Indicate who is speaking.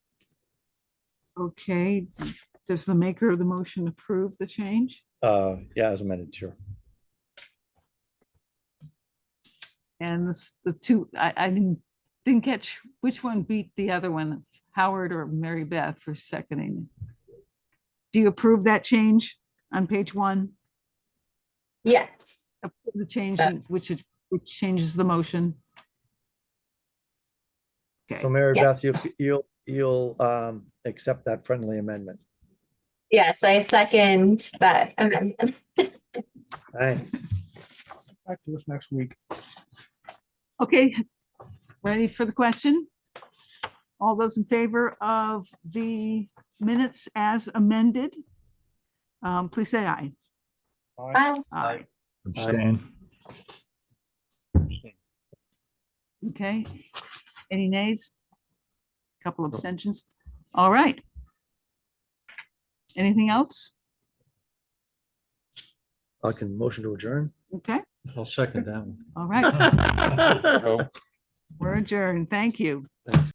Speaker 1: Okay, does the maker of the motion approve the change?
Speaker 2: Uh, yeah, as amended, sure.
Speaker 1: And this, the two, I, I didn't, didn't catch which one beat the other one, Howard or Mary Beth for seconding. Do you approve that change on page one?
Speaker 3: Yes.
Speaker 1: Approve The change, in- which is, which changes the motion? Okay,
Speaker 2: So Mary
Speaker 3: Yeah.
Speaker 2: Beth, you, you'll, you'll, um, accept that friendly amendment.
Speaker 3: Yes, I second that amendment.
Speaker 2: Thanks.
Speaker 4: Back to us next week.
Speaker 1: okay, ready for the question? All those in favor of the minutes as amended? Um, please say aye.
Speaker 4: Bye.
Speaker 3: Bye.
Speaker 2: Aye.
Speaker 5: Abstain.
Speaker 1: Okay, any nays? Couple abstentions, all right. Anything else?
Speaker 2: I can motion to adjourn.
Speaker 1: Okay,
Speaker 6: I'll second that one.
Speaker 1: all right, we're adjourned, thank you.